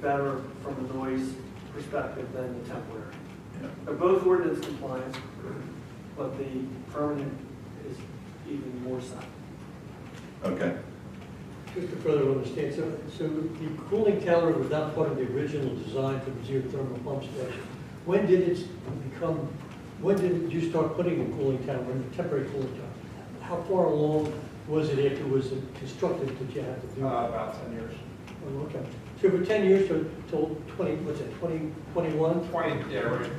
better from a noise perspective than the temporary. Yeah. They're both ordinance compliant, but the permanent is even more so. Okay, Just to further understand, so, so the cooling tower was not part of the original design for the geothermal pump station. When did it become, when did you start putting a cooling tower, a temporary cooling tower? How far along was it after it was constructed that you had to do? Uh, that? about ten years. Oh, Okay, so for ten years to, till twenty, what's it, twenty, twenty-one? Twenty, yeah, right.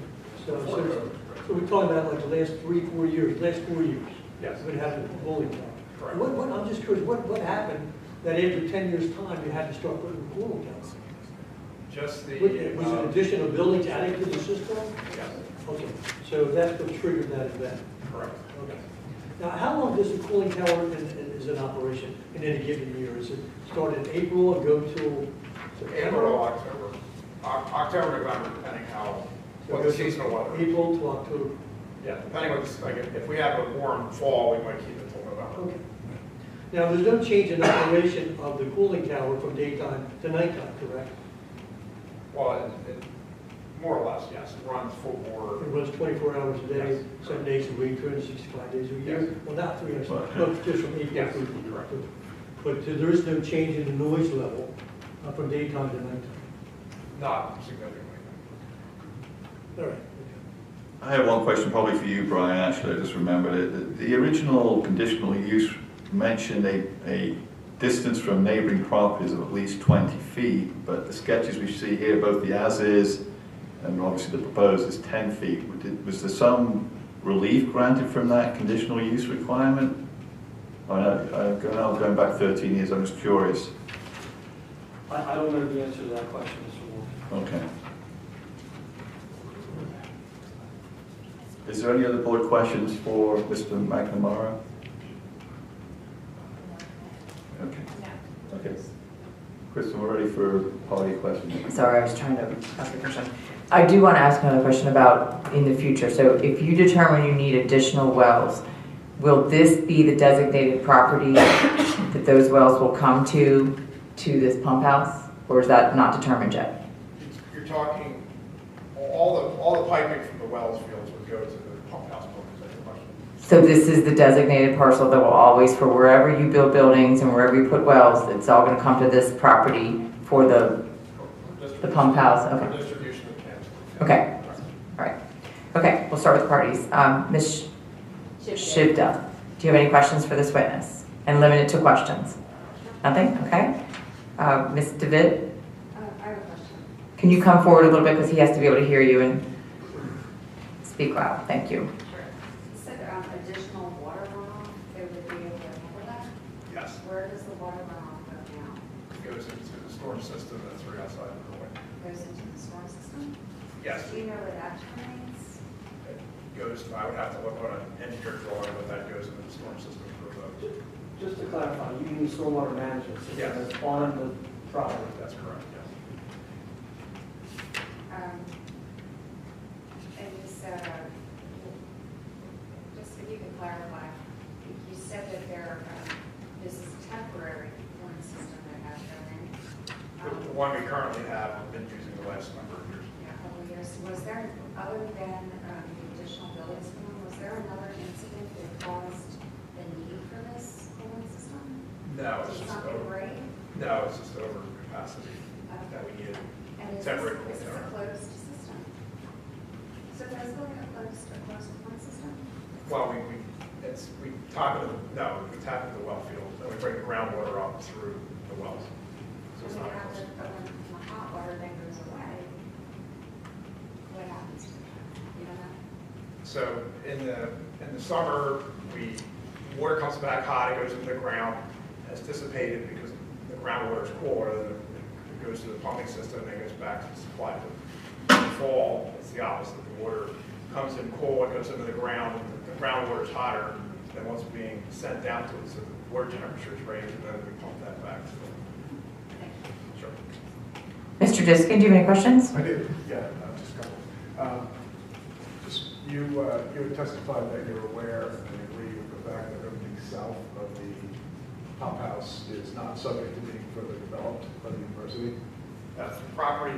So, so, so we're talking about like the last three, four years, last four years. Yes. Would have a cooling tower. Correct. What, what, I'm just curious, what, what happened that after ten years' time, you had to start putting a cooling towers? Just the. Was it was it an um, additional building added to the system? Yes, Okay, so that's what triggered that event. correct. Okay. Now, how long does the cooling tower is, is in operation in any given year? Is it start in April and go till September? April, October, O- October, November, depending how, So it what the goes from seasonal weather. April to October. Yeah, depending on, like, if if we have a warm fall, we might keep it till November. Okay. Now, there's no change in operation of the cooling tower from daytime to nighttime, correct? Well, it, it, more or less, yes, it runs full It bore. runs 24 hours a day, Yes. seven days a week, 365 days a Yes. year. Well, not 365, Well, no, just from April Yes, through. correct. But there is no change in the noise level uh, from daytime to nighttime. not significantly. All right. I have one question probably for you, Brian, actually, I just remembered it. The- The original conditional use mentioned a, a distance from neighboring properties of at least 20 feet, but the sketches we see here, both the as-is and obviously the proposed is 10 feet. Wa- did- Was there some relief granted from that conditional use requirement? I know, I'm going I'm going back 13 years, I'm just curious. I, I don't know the answer to that question, Mr. Wolf. Okay. Is there any other board questions for Mr. McNamara? Okay, okay. Kristen, we're ready for party questions. Sorry, I was trying to ask a question. I do want to ask another question about in the future. So if you determine you need additional wells, will this be the designated property that those wells will come to, to this pump house? Or is that not determined yet? It's- You're talking, all the, all the piping from the wells fields would go to the pump house buildings, that's the question. So this is the designated parcel that will always, for wherever you build buildings and wherever you put wells, it's all going to come to this property for the, the pump house? Okay. For distribution of cans. Okay. All right. Okay, we'll start with parties. Um, Ms. Shivda, do you have any questions for this witness? And limit it to questions. Nothing? Okay. Uh, Ms. David, Uh, I have a question. can you come forward a little bit because he has to be able to hear you and speak loud? Thank you. You said um, additional water runoff, it would be able to cover that? Yes, Where does the water runoff go now? it goes into the storm system that's right outside of the building. Goes into the storm system? Yes, Do you know where that terminates? it goes, I would have to look on an engineer drawing, but that goes into the storm system for those. Just to clarify, you mean stormwater management Yes. system that's on the property? That's correct, yes. Um, And you said, uh, just if you could clarify, you said that there, um, this is temporary warning system that has The been in. the um, one we currently have, we've been using the last number of years. Yeah, a couple of years. Was there, other than um, the additional buildings, was there another incident that caused the need for this cooling system? No, it's Was it just something over, great? no, it's just over capacity that we needed. And is this, Temporary is this a cooling closed system? So there's going to be a closed, a closed cooling system? Well, we, we, it's, we tap into, the- no, we tap into the well field, and we bring the groundwater up through the wells. So And it's we not have close. to, but when the hot water then goes away, what happens to that? You don't know? So in the, in the summer, we, water comes back hot, it goes into the ground, it's dissipated because the groundwater is cooler, then it goes to the pumping system, and then goes back to the supply. In the fall, it's the opposite, the water comes in cool, it goes into the ground, and the groundwater is hotter than what's being sent down to it, so the water temperature is raised, and then we pump that back to the. Sure. Mr. Diskin, do you have any questions? I do, yeah, uh, just a couple. Um, Just, you, uh, you had testified that you're aware and agree with the fact that everything south of the pump house is not subject to being further developed by the university. That's the property